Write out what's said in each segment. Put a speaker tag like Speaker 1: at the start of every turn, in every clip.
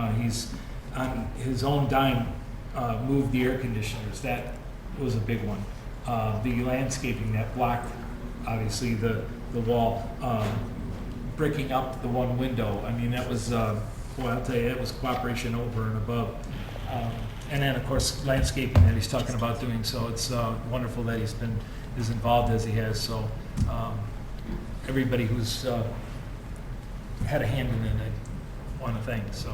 Speaker 1: Uh, he's on his own dime uh, moved the air conditioners. That was a big one. Uh, The landscaping that blocked, obviously, the, the wall, um, breaking up the one window. I mean, that was, uh, boy, I'll tell you, that was cooperation over and above. Um, And then, of course, landscaping that he's talking about doing, so it's uh, wonderful that he's been as involved as he has, so um, everybody who's uh, had a hand in it, I want to thank, so.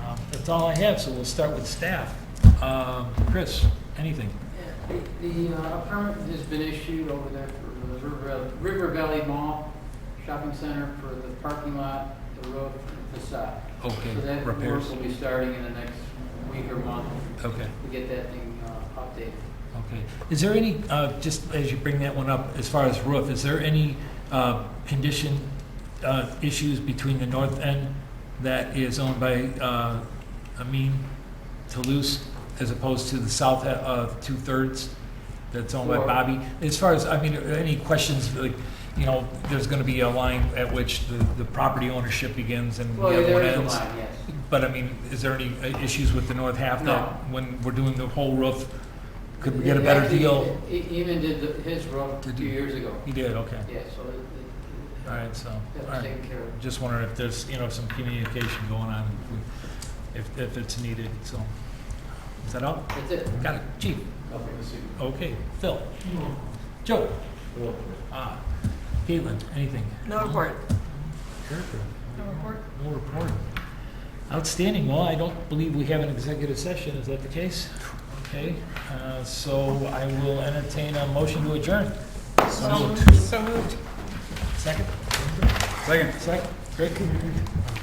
Speaker 1: um, That's all I have, so we'll start with staff. Um, Chris, anything?
Speaker 2: Yeah, The the, uh, permit has been issued over there for the River- River Valley Mall Shopping Center for the parking lot, the road and the facade.
Speaker 1: Okay,
Speaker 2: So that work
Speaker 1: repairs.
Speaker 2: will be starting in the next week or month
Speaker 1: Okay,
Speaker 2: to get that thing uh, updated.
Speaker 1: okay. Is there any, uh, just as you bring that one up, as far as roof, is there any uh, condition uh, issues between the north end that is owned by uh, Amin Toulouse as opposed to the south e- uh, two-thirds that's owned by
Speaker 2: Sure.
Speaker 1: Bobby? As far as, I mean, are there any questions, like, you know, there's going to be a line at which the the property ownership begins and the
Speaker 2: Well,
Speaker 1: other
Speaker 2: there
Speaker 1: one
Speaker 2: is a
Speaker 1: ends?
Speaker 2: line, yes.
Speaker 1: But I mean, is there any uh, issues with the north half
Speaker 2: No.
Speaker 1: that, when we're doing the whole roof, could we get a better
Speaker 2: Actually,
Speaker 1: deal?
Speaker 2: he- he Even did the- his road
Speaker 1: Did
Speaker 2: two
Speaker 1: he?
Speaker 2: years ago.
Speaker 1: You did, okay.
Speaker 2: Yeah, so it- it-
Speaker 1: All right, so, all
Speaker 2: that's
Speaker 1: right.
Speaker 2: taken care of.
Speaker 1: Just wondering if there's, you know, some communication going on, if, if it's needed, so. Is that all?
Speaker 2: That's it.
Speaker 1: Got it, chief? Okay, Phil? Joe? Ah, Caitlin, anything?
Speaker 3: No report.
Speaker 1: Erica?
Speaker 3: No report.
Speaker 1: No report. Outstanding. Well, I don't believe we have an executive session. Is that the case? Okay, uh, so I will entertain a motion to adjourn.
Speaker 3: So moved.
Speaker 1: Second?
Speaker 4: Second.
Speaker 1: Second? Great.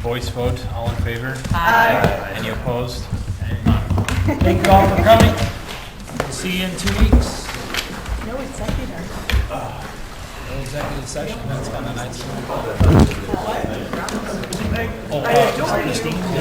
Speaker 4: Voice vote, all in favor?
Speaker 3: Aye.
Speaker 4: Any opposed?
Speaker 1: Thank you all for coming. See you in two weeks.
Speaker 3: No executive.
Speaker 1: No executive session. That's kind of nice. Oh, uh, Christine?